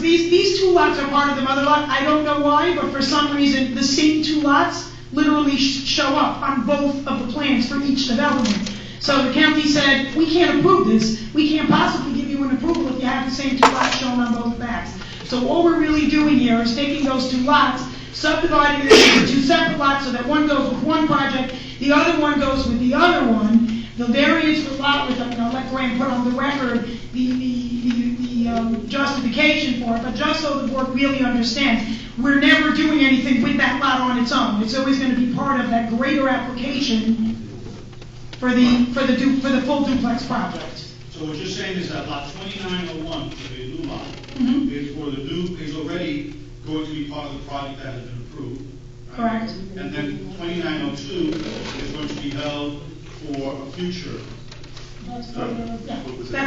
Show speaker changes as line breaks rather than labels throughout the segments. these, these two lots are part of the mother lot, I don't know why, but for some reason, the same two lots literally sh- show up on both of the plans for each development. So the county said, we can't approve this, we can't possibly give you an approval if you have the same two lots shown on both maps. So all we're really doing here is taking those two lots, subdividing them into two separate lots so that one goes with one project, the other one goes with the other one. The variance for lot width, I'm gonna let Graham put on the record the, the, the, the um, justification for it, but just so the board really understands, we're never doing anything with that lot on its own. It's always gonna be part of that greater application for the, for the, du- for the full duplex project.
So what you're saying is that lot twenty-nine oh one, the new lot,
Mhm.
is for the new, is already going to be part of the project that has been approved. right?
Correct.
And then twenty-nine oh two is going to be held for a future.
Yeah, That's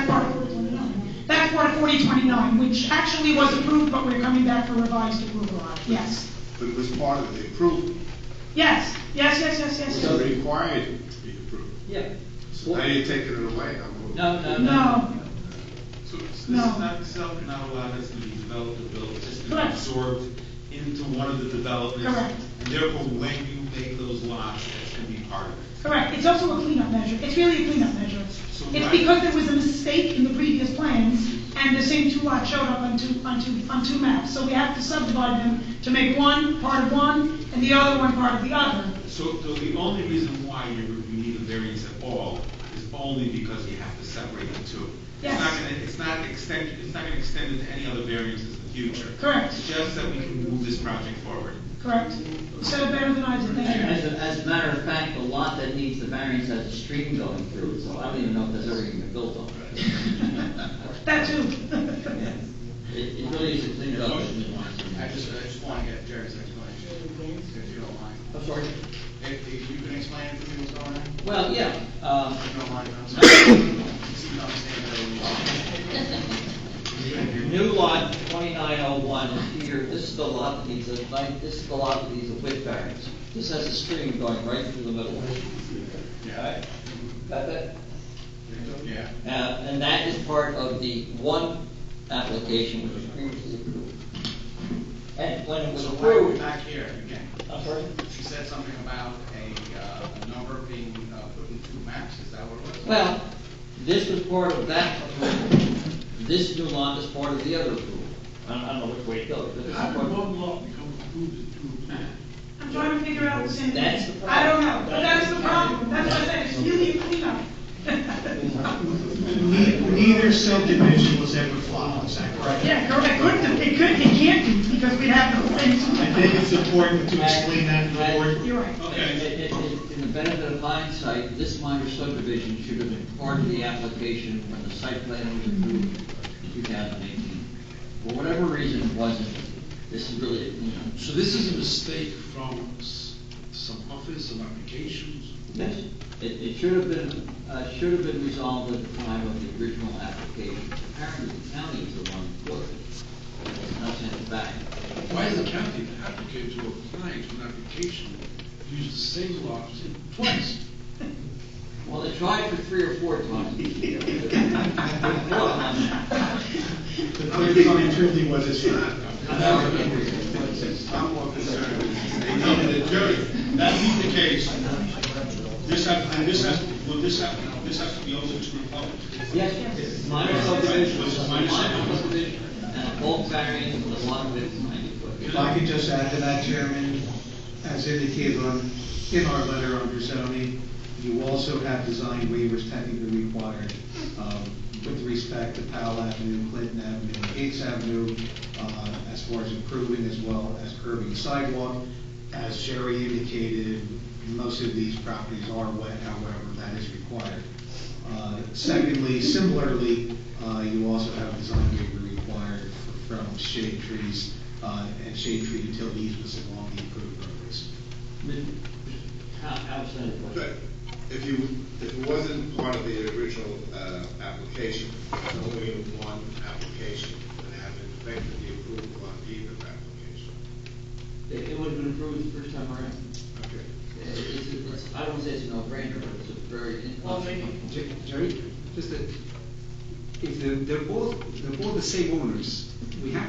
part of 4029. That's part of 4029, which actually was approved, but we're coming back for revised approval on it, yes.
But it was part of the approval,
Yes, yes, yes, yes, yes,
it
yes.
was required to be approved.
Yeah.
So now you're taking it away, I'm.
No, no,
No,
So this is
No.
not, itself cannot allow this to be developed or built, it's just been
Correct.
absorbed into one of the developments.
Correct.
And therefore, when you make those lots, that's gonna be part of it.
correct, it's also a cleanup measure, it's really a cleanup measure.
So
It's
why-
because there was a mistake in the previous plans, and the same two lots showed up on two, on two, on two maps. So we have to subdivide them to make one part of one, and the other one part of the other.
So, so the only reason why you, you need a variance at all is only because you have to separate the two.
Yes.
It's not gonna, it's not extend, it's not gonna extend into any other variances in the future.
Correct.
It's just that we can move this project forward.
Correct? You said it better than I did, thank
As
you.
a, as a matter of fact, the lot that needs the variance has a stream going through, it, so I don't even know if that's ever gonna be built on.
That too.
It, it really is a clean up.
I just, I just want to get Jerry's explanation, if you don't mind.
I'm sorry.
If, if you can explain it to me what's going on, if
Well, yeah, um,
you don't mind, I'm sorry. Just don't stand there.
New lot twenty-nine oh one here, this is the lot that needs a, like, this is the lot that needs a width variance. This has a stream going right through the middle.
Yeah,
Got that?
yeah.
Uh, and that is part of the one application which was previously approved. And when it was
So why are we
approved,
back here again?
I'm sorry?
She said something about a, uh, a number being, uh, put in two maps, is that what it was?
Well, this was part of that approval. This new lot is part of the other approval. I don't, I don't know which way it goes, but this is
How
part
did
of.
one lot become approved as two maps?
I'm trying to figure out the same.
That's the problem.
I don't know, but that's the problem, that's what I said, it's really a cleanup.
Neither subdivision was ever filed, is that correct?
Yeah, correct, it couldn't, have- it couldn't, it can't be, because we'd have the whole
I
thing.
think it's important to explain that to the board.
You're right.
In- in- in- In the benefit of hindsight, this minor subdivision should have been part of the application when the site plan was approved in two thousand eighteen. For whatever reason, it wasn't. This is really, you know.
So this is a mistake from some office, some applications?
Yes. It, it should have been, uh, should have been resolved at the time of the original application. Apparently, the county is the one who wrote it. It was not sent it back.
Why is the county, the applicant who applied to an application, used the same lot twice?
Well, they tried for three or four times.
I'm becoming truly what it's not.
I'm more concerned with the name of the jury.
That being the case, this has, and this has, well, this has, this has to be open to the public.
Yes, minor subdivision, minor subdivision, and a bulk variance with a lot width of ninety foot.
If I could just add to that, Chairman, as indicated on, in our letter under zoning, you also have design waivers technically required um, with respect to Powell Avenue, Clinton Avenue, Gates Avenue, uh, as far as improving as well as curbing sidewalk. As Sherry indicated, most of these properties are wet, however, that is required. Uh, Secondly, similarly, uh, you also have a design waiver required for- from shade trees uh, and shade tree utility easements along the approved roadways.
How, outstanding
But
question.
if you, if it wasn't part of the original, uh, application, it's only in one application, and it hasn't affected the approval on either application.
It, it would have been approved the first time around.
Okay.
It's, it's, I don't wanna say it's a no-brainer, but it's a very.
Jer- Jerry, just that, if they're, they're all, they're all the same owners, we have